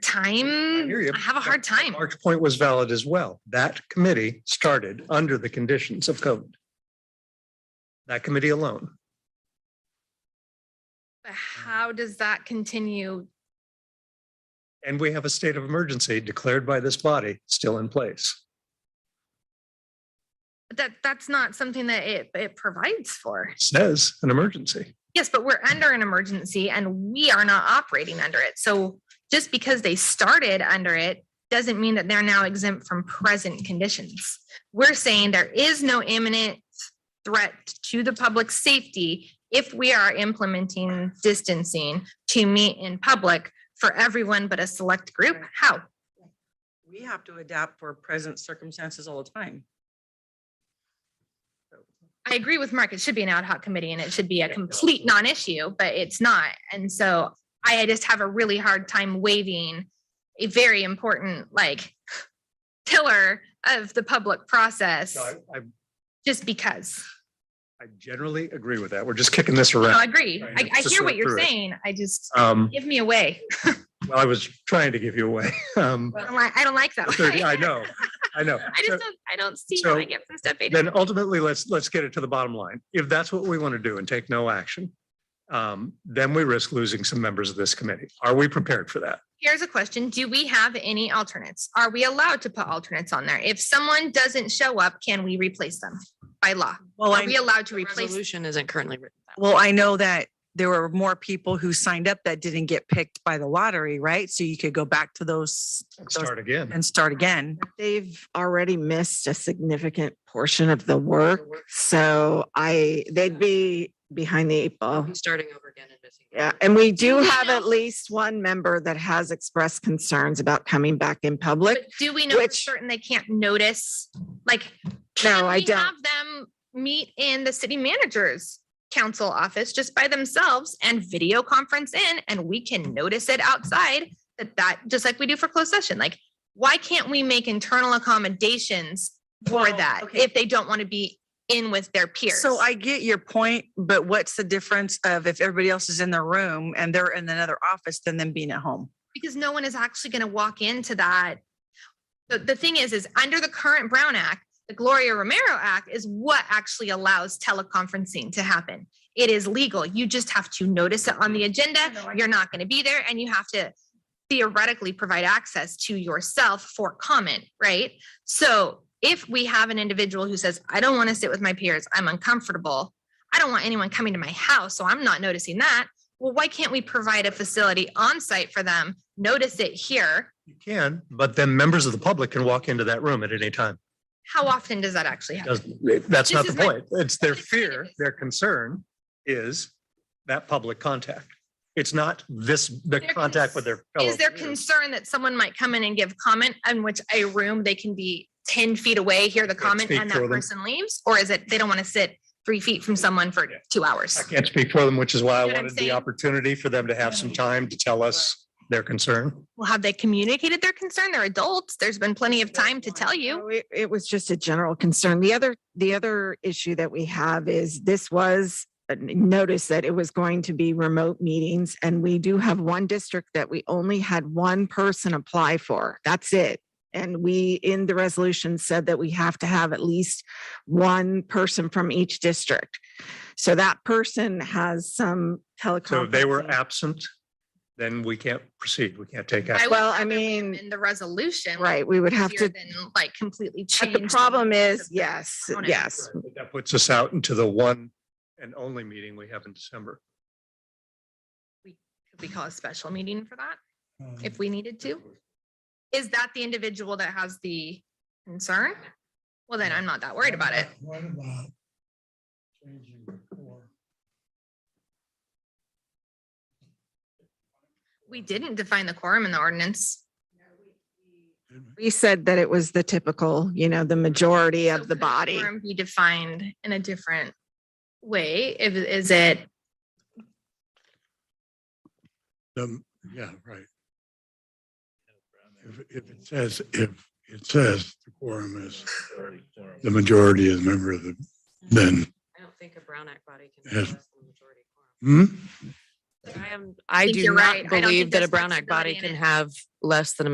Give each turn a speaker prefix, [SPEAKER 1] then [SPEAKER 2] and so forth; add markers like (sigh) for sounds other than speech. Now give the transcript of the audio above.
[SPEAKER 1] time.
[SPEAKER 2] hear you.
[SPEAKER 1] I have a hard time.
[SPEAKER 2] Mark's point was valid as well. That committee started under the conditions of code. That committee alone.
[SPEAKER 1] But how does that continue?
[SPEAKER 2] And we have a state of emergency declared by this body still in place.
[SPEAKER 1] That, that's not something that it, it provides for.
[SPEAKER 2] Says an emergency.
[SPEAKER 1] Yes, but we're under an emergency and we are not operating under it. So just because they started under it doesn't mean that they're now exempt from present conditions. We're saying there is no imminent threat to the public safety if we are implementing distancing to meet in public for everyone but a select group. How?
[SPEAKER 3] We have to adapt for present circumstances all the time.
[SPEAKER 1] I agree with Mark. It should be an ad hoc committee and it should be a complete non-issue, but it's not. And so I just have a really hard time waiving a very important like pillar of the public process
[SPEAKER 2] No, I, I-
[SPEAKER 1] just because.
[SPEAKER 2] I generally agree with that. We're just kicking this
[SPEAKER 1] No, I
[SPEAKER 2] around.
[SPEAKER 1] agree.
[SPEAKER 2] Right,
[SPEAKER 1] I, I
[SPEAKER 2] just
[SPEAKER 1] hear what
[SPEAKER 2] work
[SPEAKER 1] you're
[SPEAKER 2] through it.
[SPEAKER 1] saying. I just,
[SPEAKER 2] Um,
[SPEAKER 1] give me away.
[SPEAKER 2] well, I was trying to give you away. (laughs) Um,
[SPEAKER 1] I don't like, I don't like
[SPEAKER 2] (laughs)
[SPEAKER 1] that.
[SPEAKER 2] the
[SPEAKER 1] way.
[SPEAKER 2] thirty-
[SPEAKER 1] (laughs)
[SPEAKER 2] I know, I know.
[SPEAKER 1] I
[SPEAKER 2] So
[SPEAKER 1] just don't, I don't see how I
[SPEAKER 2] so
[SPEAKER 1] get from step eight.
[SPEAKER 2] Then ultimately, let's, let's get it to the bottom line. If that's what we want to do and take no action, um, then we risk losing some members of this committee. Are we prepared for that?
[SPEAKER 1] Here's a question. Do we have any alternates? Are we allowed to put alternates on there? If someone doesn't show up, can we replace them by law?
[SPEAKER 4] Well,
[SPEAKER 1] Are
[SPEAKER 4] I,
[SPEAKER 1] we allowed to
[SPEAKER 5] The
[SPEAKER 1] replace?
[SPEAKER 5] Resolution isn't currently written. that way.
[SPEAKER 4] well, I know that there were more people who signed up that didn't get picked by the lottery, right? So you could go back to those those
[SPEAKER 2] Start again.
[SPEAKER 4] and start again.
[SPEAKER 6] They've already missed a significant portion of the work, so I, they'd be behind the eight ball.
[SPEAKER 5] We're Starting over again and missing.
[SPEAKER 6] Yeah, and we do
[SPEAKER 1] we
[SPEAKER 6] have at
[SPEAKER 1] know-
[SPEAKER 6] least one member that has expressed concerns about coming back in public.
[SPEAKER 1] But do we know for
[SPEAKER 6] which-
[SPEAKER 1] certain they can't notice? Like,
[SPEAKER 6] No,
[SPEAKER 1] can
[SPEAKER 6] I
[SPEAKER 1] we
[SPEAKER 6] don't.
[SPEAKER 1] Have them meet in the city manager's council office just by themselves and video conference in, and we can notice it outside that that, just like we do for closed session, like, why can't we make internal accommodations for
[SPEAKER 3] Well,
[SPEAKER 1] that
[SPEAKER 3] okay.
[SPEAKER 1] if they don't want to be in with their peers?
[SPEAKER 4] So I get your point, but what's the difference of if everybody else is in their room and they're in another office than them being at home?
[SPEAKER 1] because no one is actually going to walk into that. The, the thing is, is under the current Brown Act, the Gloria Romero Act is what actually allows teleconferencing to happen. It is legal. You just have to notice it on the agenda. You're not going to be there and you have to theoretically provide access to yourself for comment, right? So if we have an individual who says, I don't want to sit with my peers, I'm uncomfortable. I don't want anyone coming to my house, so I'm not noticing that well, why can't we provide a facility on site for them? Notice it here.
[SPEAKER 2] You can, but then members of the public can walk into that room at any time.
[SPEAKER 1] How often does that actually happen?
[SPEAKER 2] Doesn't- That's
[SPEAKER 1] This
[SPEAKER 2] not the
[SPEAKER 1] is my-
[SPEAKER 2] point. It's their
[SPEAKER 1] It's kind of
[SPEAKER 2] fear,
[SPEAKER 1] is.
[SPEAKER 2] their concern is that public contact. It's not this,
[SPEAKER 1] Their
[SPEAKER 2] the contact with their fellow.
[SPEAKER 1] Is there
[SPEAKER 2] peers.
[SPEAKER 1] concern that someone might come in and give comment in which a room they can be ten feet away, hear the
[SPEAKER 2] Can't
[SPEAKER 1] comment
[SPEAKER 2] speak
[SPEAKER 1] and
[SPEAKER 2] for
[SPEAKER 1] that
[SPEAKER 2] them.
[SPEAKER 1] person leaves? Or is it they don't want to sit three feet from someone for
[SPEAKER 2] Yeah.
[SPEAKER 1] two hours?
[SPEAKER 2] I can't speak for them, which is
[SPEAKER 1] You
[SPEAKER 2] why I
[SPEAKER 1] know what I'm
[SPEAKER 2] wanted the
[SPEAKER 1] saying?
[SPEAKER 2] opportunity for them to have some time to tell us their concern.
[SPEAKER 1] Well, have they communicated their concern? They're adults. There's been plenty of time to tell you.
[SPEAKER 6] So It, it was just a general concern. The other, the other issue that we have is this was a n- notice that it was going to be remote meetings and we do have one district that we only had one person apply for. That's it. And we, in the resolution said that we have to have at least one person from each district. So that person has some teleconferencing.
[SPEAKER 2] So if they were absent, then we can't proceed. We can't take
[SPEAKER 1] I
[SPEAKER 2] action.
[SPEAKER 1] would
[SPEAKER 6] Well, I
[SPEAKER 1] rather leave
[SPEAKER 6] mean,
[SPEAKER 1] them In the resolution.
[SPEAKER 6] Right, we would have
[SPEAKER 1] easier
[SPEAKER 6] to,
[SPEAKER 1] Than like completely
[SPEAKER 6] but
[SPEAKER 1] change.
[SPEAKER 6] the problem is,
[SPEAKER 1] yes.
[SPEAKER 6] yes,
[SPEAKER 1] component.
[SPEAKER 6] yes,
[SPEAKER 2] But That puts us out into the one and only meeting we have in December.
[SPEAKER 1] Could we call a special meeting for that if we needed to? Is that the individual that has the concern? Well, then I'm not that worried about it.
[SPEAKER 7] What about changing the core?
[SPEAKER 1] We didn't define the quorum in the ordinance.
[SPEAKER 6] We said that it was the typical, you know, the majority
[SPEAKER 1] So
[SPEAKER 6] of the
[SPEAKER 1] could
[SPEAKER 6] body.
[SPEAKER 1] quorum Be defined in a different way. If, is it,
[SPEAKER 7] Um, yeah, right. If, if it says, if it says the quorum is, the majority is a member of the, then,
[SPEAKER 5] I don't think a Brown Act body can.
[SPEAKER 7] Yes.
[SPEAKER 5] be less than the majority quorum.
[SPEAKER 7] hmm?
[SPEAKER 5] I am, I
[SPEAKER 1] think
[SPEAKER 5] do
[SPEAKER 1] you're right. I
[SPEAKER 5] not
[SPEAKER 1] don't think
[SPEAKER 5] believe that a
[SPEAKER 1] there's
[SPEAKER 5] Brown Act body
[SPEAKER 1] flexibility in
[SPEAKER 5] can
[SPEAKER 1] it.
[SPEAKER 5] have less than a